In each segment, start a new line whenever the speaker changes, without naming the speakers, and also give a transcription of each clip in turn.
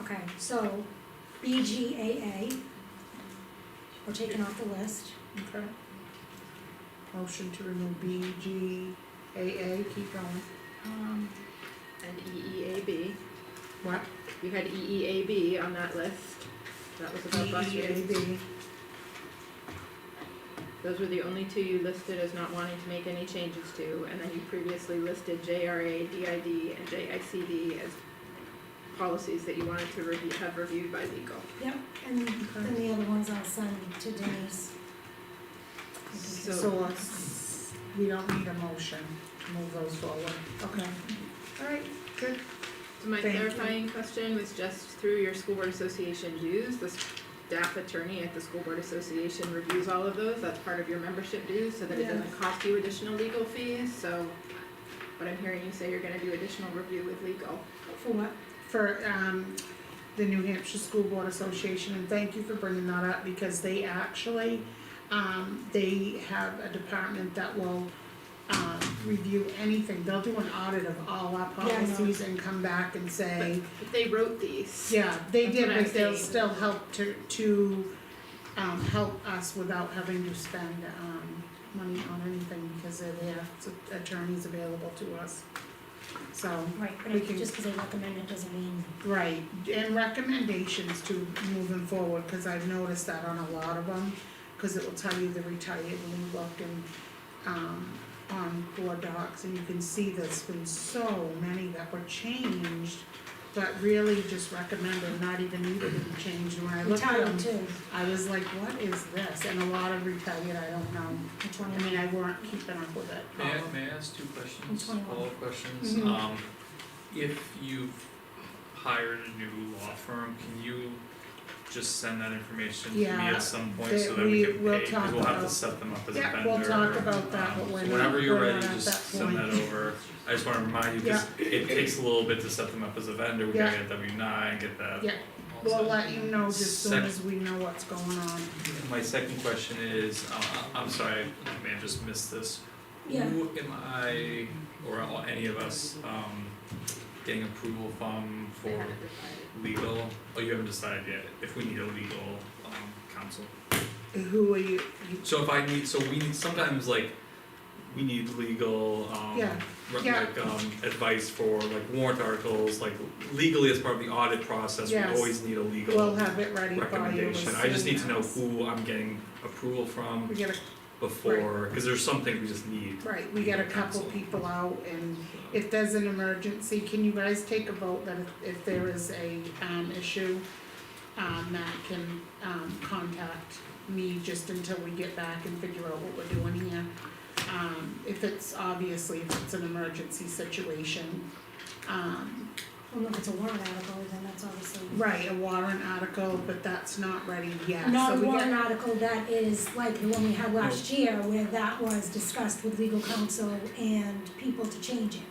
Okay, so BGAA, we're taking off the list.
Okay. Motion to remove B, G, A, A, keep going.
Um,
And EEAB,
What?
E you had E EEAB on that list, that was about bus
B, E, A,
routes.
B.
Those were the only two you listed as not wanting to make any changes to, and then you previously listed JRA, DID, and JICD as policies that you wanted to review, have reviewed by legal.
yep, and then the other ones I'll send to Denise.
So,
So, us- we don't need a motion to move those forward. Okay.
alright, good. So my
Thank you.
clarifying question was just through your school board association dues, the staff attorney at the school board association reviews all of those, that's part of your membership dues, so that it
Yeah.
doesn't cost you additional legal fees, so. But I'm hearing you say you're gonna do additional review with legal.
For what?
For, um, the New Hampshire School Board Association, and thank you for bringing that up, because they actually, um, they have a department that will, um, review anything. They'll do an audit of all our
Yeah, I know.
policies and come back and say,
But they wrote these.
Yeah, they
That's
did,
what I'm
but they'll
saying.
still help to, to, um, help us without having to spend, um, money on anything because they're there, so attorneys available to us. So,
Right, but
We
it-
can-
just because they recommend it doesn't mean,
right, and recommendations to moving forward, cause I've noticed that on a lot of them, cause it will tell you the retired when you look and, um, on board docs, and you can see there's been so many that were changed, but really just recommended, not even needed to be changed, and when I looked at them.
retired too,
I was like, what is this? And a lot of retired, I don't know.
which
I
one?
mean, I weren't keeping up with it.
May I, may I ask two questions,
Which one?
follow-up questions?
Mm-hmm.
Mhm.
Um, if you've hired a new law firm, can you just send that information to me
Yeah,
at some point
that
so that we
we-
can
we'll
pay, cause
talk
we'll have to
about-
set them up as a vendor.
Yeah, we'll talk about that,
um,
but we're
so
not-
Whenever you're
we're
ready,
not at
just
that
send that
point.
over. I just wanna remind you, cause it takes a little bit to set them up as a vendor, we gotta
Yeah.
get W nine, get that.
Yeah,
all
We'll
set.
let you know just soon
Sec-
as we know what's going on.
My second question is, uh, I'm sorry, I may have just missed this.
Yeah.
Who am I, or all- any of us, um, getting approval from
They
for
haven't decided.
legal? Oh, you haven't decided yet, if we need a legal, um, counsel.
Who are you, you-
So if I need, so we need, sometimes like, we need legal, um,
Yeah.
re-
Yeah.
like, um, advice for like warrant articles, like legally as part of the audit process, we
Yes.
always need a legal
we'll have it ready by you as
recommendation. I just
soon
need to know
as-
who I'm getting approval from.
We get
before, cause there's some things we just need.
a, right, we get a couple people out and if there's an emergency, can you guys take a vote that if- if there is a, um, issue, um, that can, um, contact me just until we get back and figure out what we're doing here? Um, if it's, obviously, if it's an emergency situation, um,
Well, if it's a warrant article, then that's obviously.
right, a warrant article, but that's not ready yet, so
Not a
we
warrant
get, Oh.
article that is like the one we had last year where that was discussed with legal counsel and people to change it.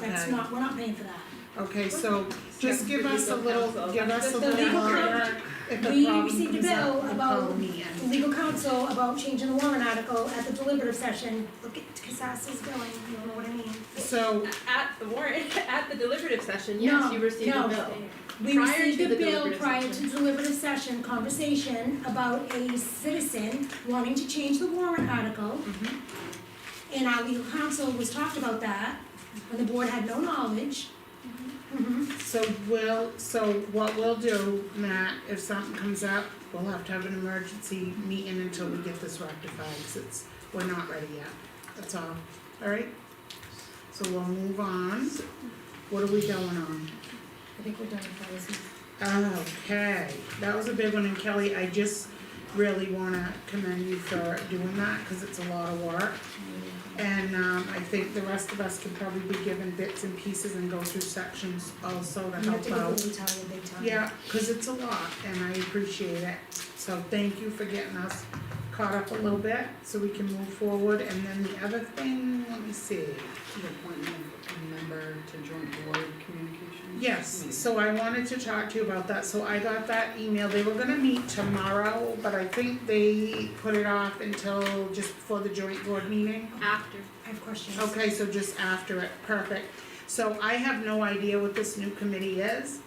That's
Okay.
not, we're not paying for that.
okay, so just
Step
give
for
us a
legal
little,
counsel.
give us a
The
little
legal
more,
counsel-
if the
we
problem
received a
comes up,
bill
we'll
about
call me and-
legal counsel about changing the warrant article at the deliberative session, look at Casas's billing, you know what I mean?
So,
At the warrant, at the deliberative session, yes,
No,
you received
no.
a bill.
We
Prior to
received a
the
bill
deliberative
prior to
session.
deliberative session, conversation about a citizen wanting to change the warrant article.
mm-hmm.
Mhm.
And our legal counsel was talked about that, when the board had no knowledge. Mhm.
So we'll, so what we'll do, Matt, if something comes up, we'll have to have an emergency meeting until we get this rectified, 'cause it's, we're not ready yet, that's all, alright? So we'll move on, what are we going on?
I think we're done with policy.
Okay, that was a big one, and Kelly, I just really wanna commend you for doing that, cause it's a lot of work. And um I think the rest of us can probably be given bits and pieces and go through sections also to
You have
help
to go
out.
really tired, big time.
Yeah, cause it's a lot and I appreciate it, so thank you for getting us caught up a little bit so we can move forward, and then the other thing, let me see.
The appointment of a member to joint board communications?
Yes, so I wanted to talk to you about that, so I got that email, they were gonna meet tomorrow, but I think they put it off until just before the joint board meeting.
After.
I have questions.
Okay, so just after it, perfect. So I have no idea what this new committee is.